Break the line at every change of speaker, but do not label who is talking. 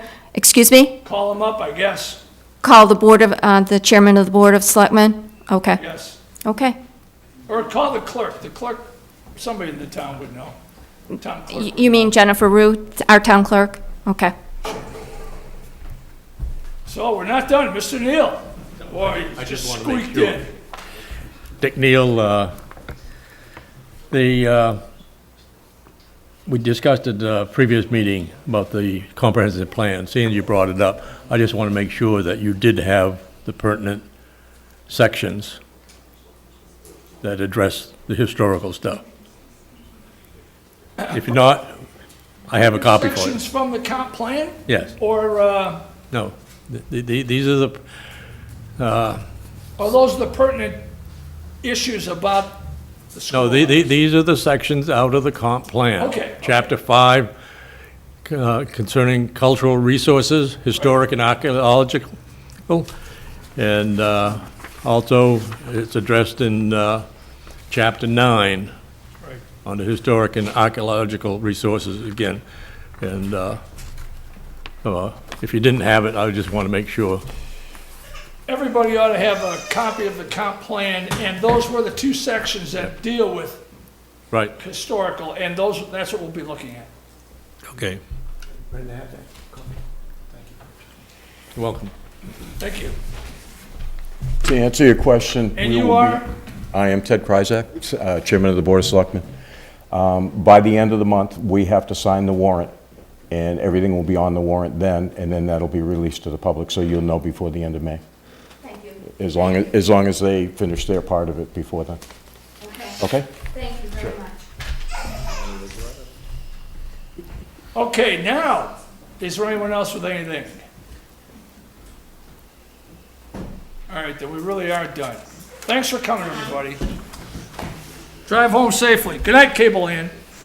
Excuse me?
Call them up, I guess,
Call the Board of, uh, the Chairman of the Board of Selectmen? Okay,
yes.
okay.
Or call the clerk. The clerk, somebody in the town would know. Town clerk.
Y- You mean Jennifer Rue, our town clerk? Okay.
So we're not done. Mr. Neal. Boy, you
I just
just
wanted to make
squeaked
sure.
in.
Dick Neal, uh, the, uh, we discussed at the previous meeting about the comprehensive plan, seeing you brought it up. I just want to make sure that you did have the pertinent sections that address the historical stuff. If not, I have a copy for you.
Sections from the comp plan?
Yes,
Or uh,
no, The- the- these are the,
are those the pertinent issues about the school?
No, the, the, these are the sections out of the comp plan.
Okay.
Chapter five, uh, concerning cultural resources, historic and archaeological, and, uh, also, it's addressed in, uh, chapter nine
Right.
on the historic and archaeological resources again. And, uh, uh, if you didn't have it, I just want to make sure.
Everybody ought to have a copy of the comp plan, and those were the two sections that deal with
Right,
historical, and those, that's what we'll be looking at.
okay. You're Welcome.
Thank you.
To answer your question.
And
we
you
will be-
are?
I am Ted Kryzak, uh, Chairman of the Board of Selectmen. Um, By the end of the month, we have to sign the warrant, and everything will be on the warrant then, and then that'll be released to the public, so you'll know before the end of May.
Thank you.
As long, as as long as they finish their part of it before then,
Okay,
okay?
thank you very much.
Okay, now, is there anyone else with anything? All right, then we really are done. Thanks for coming, everybody. Drive home safely. Good night, Cable Ann.